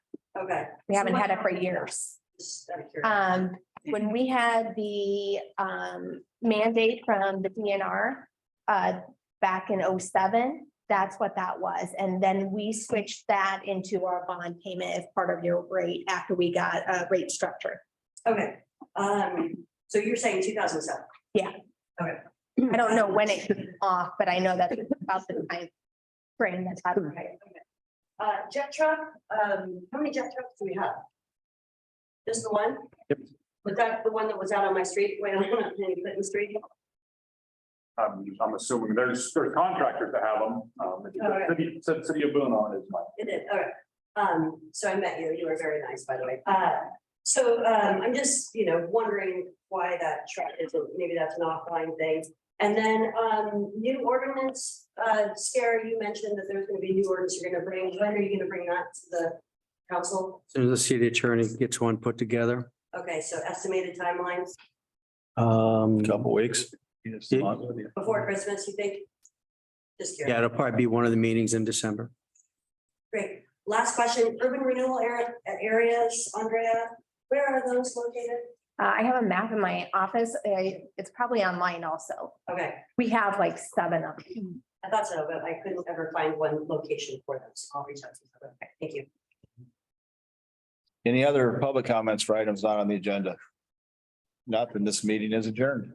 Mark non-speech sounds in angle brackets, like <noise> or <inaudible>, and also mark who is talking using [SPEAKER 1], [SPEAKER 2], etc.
[SPEAKER 1] Okay.
[SPEAKER 2] We haven't had it for years.
[SPEAKER 1] Just out of curiosity.
[SPEAKER 2] Um, when we had the, um, mandate from the DNR, uh, back in 07, that's what that was. And then we switched that into our bond payment as part of your rate after we got a rate structure.
[SPEAKER 1] Okay, um, so you're saying two thousand seven?
[SPEAKER 2] I don't know when <clears throat> it came off, but I know that's about the time frame that's happening.
[SPEAKER 1] Uh, jet truck, um, how many jet trucks do we have? Just the one?
[SPEAKER 3] Yep.
[SPEAKER 1] Was that the one that was out on my street, <laughs> way on Clinton Street?
[SPEAKER 3] I'm, Um, I'm assuming there's, there's contractors that have them. Um, if you go to city, ci- city of Boone on it is mine.
[SPEAKER 1] It is, all right. Um, so I met you, you were very nice, by the way. Uh, so, um, I'm just, you know, wondering why that truck isn't, maybe that's an offline thing. And then, um, new ordinance, uh, Sarah, you mentioned that there's gonna be new ordinance you're gonna bring. When are you gonna bring that to the council?
[SPEAKER 4] Soon as the city attorney gets one put together.
[SPEAKER 1] Okay, so estimated timelines
[SPEAKER 4] Um,
[SPEAKER 3] Couple weeks.
[SPEAKER 1] before Christmas, you think? Just
[SPEAKER 4] yeah,
[SPEAKER 1] curious.
[SPEAKER 4] it'll probably be one of the meetings in December.
[SPEAKER 1] Great. Last question, urban renewal area, areas, Andrea, where are those located?
[SPEAKER 2] Uh, I have a map in my office. I- It's probably online also.
[SPEAKER 1] Okay,
[SPEAKER 2] We have like seven of them.
[SPEAKER 1] I thought so, but I couldn't ever find one location for them, so I'll reach out to you. Okay, Thank you.
[SPEAKER 5] Any other public comments for items not on the agenda? Nothing, this meeting is adjourned.